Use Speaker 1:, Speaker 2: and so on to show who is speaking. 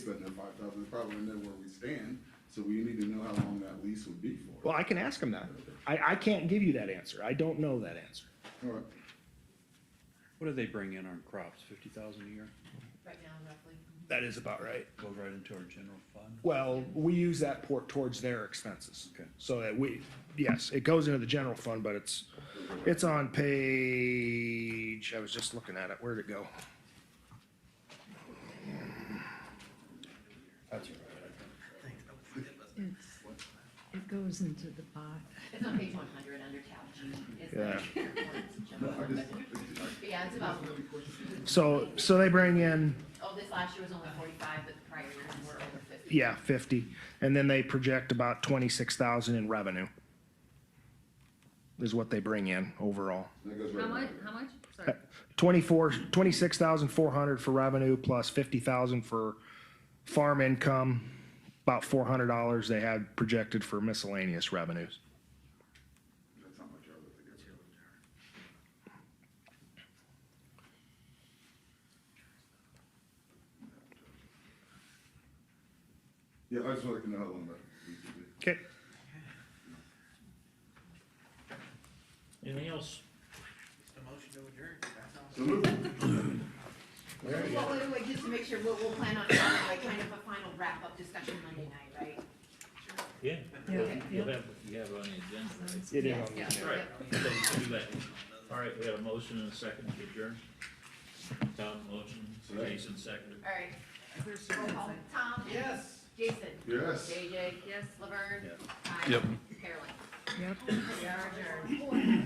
Speaker 1: spending that five thousand, it's probably gonna know where we stand, so we need to know how long that lease would be for.
Speaker 2: Well, I can ask him that. I, I can't give you that answer. I don't know that answer.
Speaker 1: All right.
Speaker 3: What do they bring in on crops, fifty thousand a year?
Speaker 4: right now roughly.
Speaker 2: That is about right.
Speaker 3: Goes right into our general fund?
Speaker 2: Well, we use that port towards their expenses.
Speaker 3: Okay.
Speaker 2: So that we, yes, it goes into the general fund, but it's, it's on page, I was just looking at it, where'd it go? That's right.
Speaker 5: It goes into the pot.
Speaker 4: It's on page one hundred under tab G. It's
Speaker 2: Yeah.
Speaker 4: like- Jump over, but- But yeah, it's about,
Speaker 2: So, so they bring in,
Speaker 4: oh, this last year was only forty-five, but the prior years were over fifty.
Speaker 2: yeah, fifty, and then they project about twenty-six thousand in revenue. Is what they bring in overall.
Speaker 1: That goes right
Speaker 6: How
Speaker 1: back
Speaker 6: much,
Speaker 1: there.
Speaker 6: how much? Sorry.
Speaker 2: Twenty-four, twenty-six thousand four hundred for revenue plus fifty thousand for farm income. About four hundred dollars they had projected for miscellaneous revenues.
Speaker 1: That's not much of it that gets rid of it. Yeah, I just wanna know how long that lease would be.
Speaker 2: Okay.
Speaker 7: Anything else?
Speaker 1: So move.
Speaker 4: Well, wait, wait, just to make sure, we'll, we'll plan on having like kind of a final wrap-up discussion Monday night, right?
Speaker 7: Yeah.
Speaker 5: Yeah,
Speaker 7: You
Speaker 5: yeah.
Speaker 7: have, you have on the agenda, right?
Speaker 2: It
Speaker 4: Yeah, yeah,
Speaker 7: Right.
Speaker 4: yeah.
Speaker 7: So we can do that. All right, we have a motion and a second to adjourn. Tom, motion, Jason, second.
Speaker 4: All right. Roll call. Tom? Yes. Jason?
Speaker 1: Yes.
Speaker 4: JJ? Yes. Laverne?
Speaker 7: Yeah.
Speaker 4: Yep. Carolyn?
Speaker 5: Yep.
Speaker 4: We are adjourned.